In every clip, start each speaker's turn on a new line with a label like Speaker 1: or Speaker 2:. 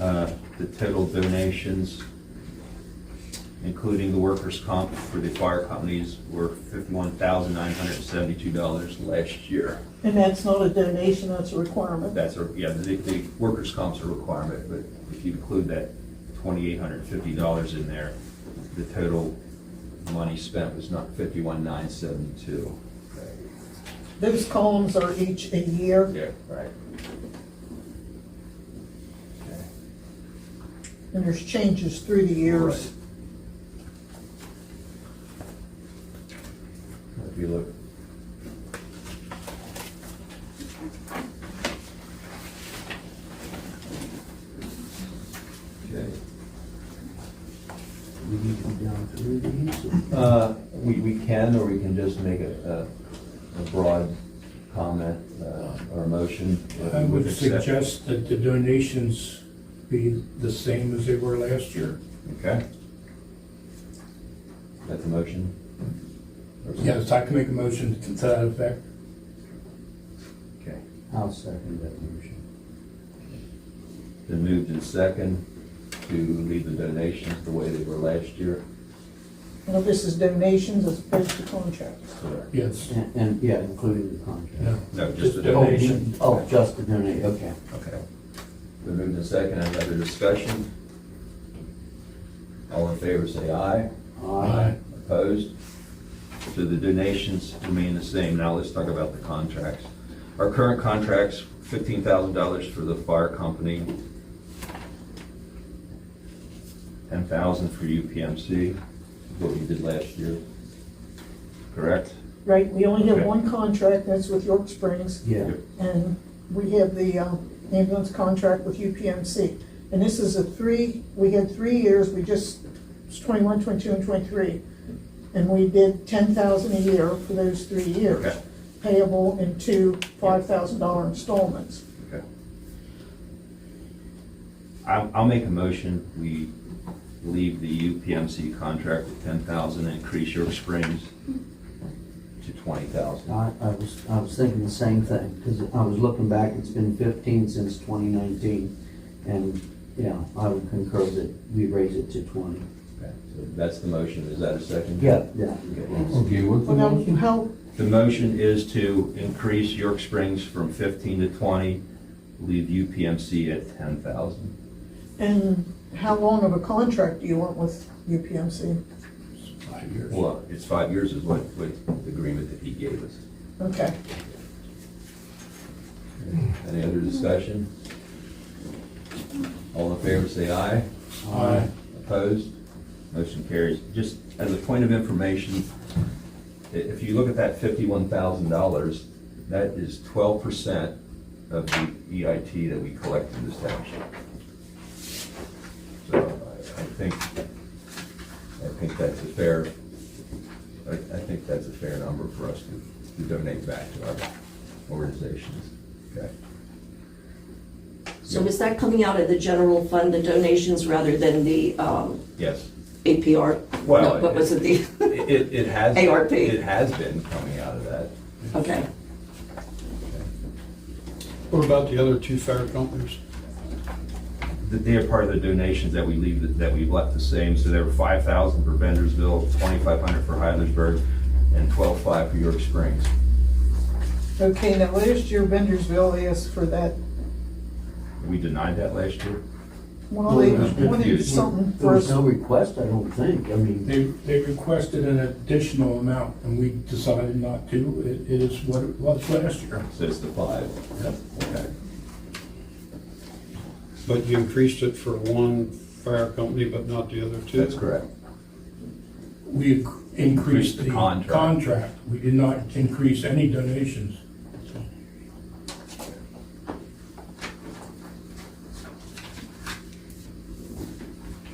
Speaker 1: Uh, The total donations, including the workers' comp for the fire companies, were fifty-one thousand nine hundred and seventy-two dollars last year.
Speaker 2: And that's not a donation, that's a requirement.
Speaker 1: That's a, yeah, the, the workers' comp's a requirement, but if you include that twenty-eight hundred and fifty dollars in there, the total money spent was not fifty-one nine seventy-two.
Speaker 2: Those columns are each a year,
Speaker 1: Yeah, right. Okay.
Speaker 2: and there's changes through the years.
Speaker 1: Right. If you look. Okay,
Speaker 3: We need to come down through these.
Speaker 1: uh, we, we can, or we can just make a, a, a broad comment, uh, or a motion. that we
Speaker 3: I would
Speaker 1: accept.
Speaker 3: suggest that the donations be the same as they were last year.
Speaker 1: Okay. That's a motion? Or-
Speaker 3: Yes, I can make a motion to that effect.
Speaker 1: Okay.
Speaker 4: I'll second that motion.
Speaker 1: Been moved in second to leave the donations the way they were last year.
Speaker 2: Now, this is donations as opposed to contracts.
Speaker 1: Correct.
Speaker 3: Yes.
Speaker 4: And, and, yeah, including the contract.
Speaker 3: No.
Speaker 1: No, just the
Speaker 4: Oh,
Speaker 1: donation.
Speaker 4: Oh, just the donation, okay.
Speaker 1: Okay. Been moved in second, any other discussion? All in favor, say aye.
Speaker 3: Aye.
Speaker 1: Opposed? So the donations remain the same. Now let's talk about the contracts. Our current contracts, fifteen thousand dollars for the fire company, ten thousand for UPMC, what we did last year. Correct?
Speaker 2: Right, we only have
Speaker 1: Okay.
Speaker 2: one contract, that's with York Springs.
Speaker 4: Yeah,
Speaker 2: And we have the um, ambulance contract with UPMC. And this is a three, we had three years, we just, it's 21, 22, and 23. And we did 10,000 a year for those three years.
Speaker 1: Okay.
Speaker 2: Payable in two $5,000 installments.
Speaker 1: Okay. I'll, I'll make a motion, we leave the UPMC contract at ten thousand, increase York Springs to twenty thousand.
Speaker 4: I, I was, I was thinking the same thing, because I was looking back, it's been fifteen since twenty nineteen. And, yeah, I would concur that we raise it to twenty.
Speaker 1: Okay, so that's the motion, is that a second?
Speaker 4: Yeah, yeah.
Speaker 5: Okay, what's the
Speaker 2: Well, now,
Speaker 5: motion?
Speaker 2: how,
Speaker 1: The motion is to increase York Springs from fifteen to twenty, leave UPMC at ten thousand.
Speaker 2: and how long of a contract do you want with UPMC?
Speaker 3: Five years.
Speaker 1: Well, it's five years is what, what the agreement that he gave us.
Speaker 2: Okay.
Speaker 1: Any other discussion? All in favor, say aye.
Speaker 3: Aye.
Speaker 1: Opposed? Motion carries. Just as a point of information, i- if you look at that fifty-one thousand dollars, that is twelve percent of the EIT that we collect in this township. So I, I think, I think that's a fair, I, I think that's a fair number for us to, to donate back to our organizations. Okay?
Speaker 6: So is that coming out of the general fund, the donations, rather than the um,
Speaker 1: Yes.
Speaker 6: APR?
Speaker 1: Well,
Speaker 6: No, What was it, the,
Speaker 1: It, it- it has.
Speaker 6: ARP.
Speaker 1: It has been coming out of that.
Speaker 6: okay.
Speaker 7: What about the other two fire companies?
Speaker 1: that they are part of the donations that we leave, that we've left the same, so there were five thousand for Bendersville, twenty-five hundred for Heidelberg, and twelve-five for York Springs.
Speaker 2: Okay, now last year Bendersville asked for that,
Speaker 1: We denied that last year?
Speaker 2: well, they
Speaker 4: Well, it was
Speaker 2: wanted
Speaker 1: confused.
Speaker 2: something
Speaker 4: There
Speaker 2: for us.
Speaker 4: was no request, I don't think, I mean,
Speaker 3: They, they requested an additional amount and we decided not to. It it is what it was last year.
Speaker 1: So it's the five. Okay.
Speaker 7: But you increased it for one fire company, but not the other two?
Speaker 1: That's correct.
Speaker 3: We
Speaker 1: Increased
Speaker 3: increased
Speaker 1: the
Speaker 3: the
Speaker 1: contract.
Speaker 3: contract. We did not increase any donations.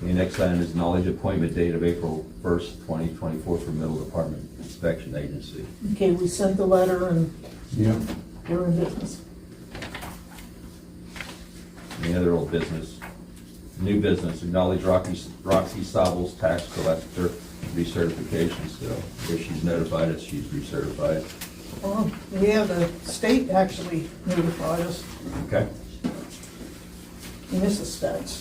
Speaker 1: The next item is knowledge appointment date of April first, twenty twenty-four for Middle Department Inspection Agency.
Speaker 2: Okay, we sent the letter and
Speaker 5: Yeah,
Speaker 2: we're in business.
Speaker 1: Any other old business? New business, acknowledge Rocky, Roxy Sobel's tax collector recertification, so if she's notified us, she's recertified.
Speaker 2: Well, yeah, the state actually notified us.
Speaker 1: Okay.
Speaker 2: and this is studs.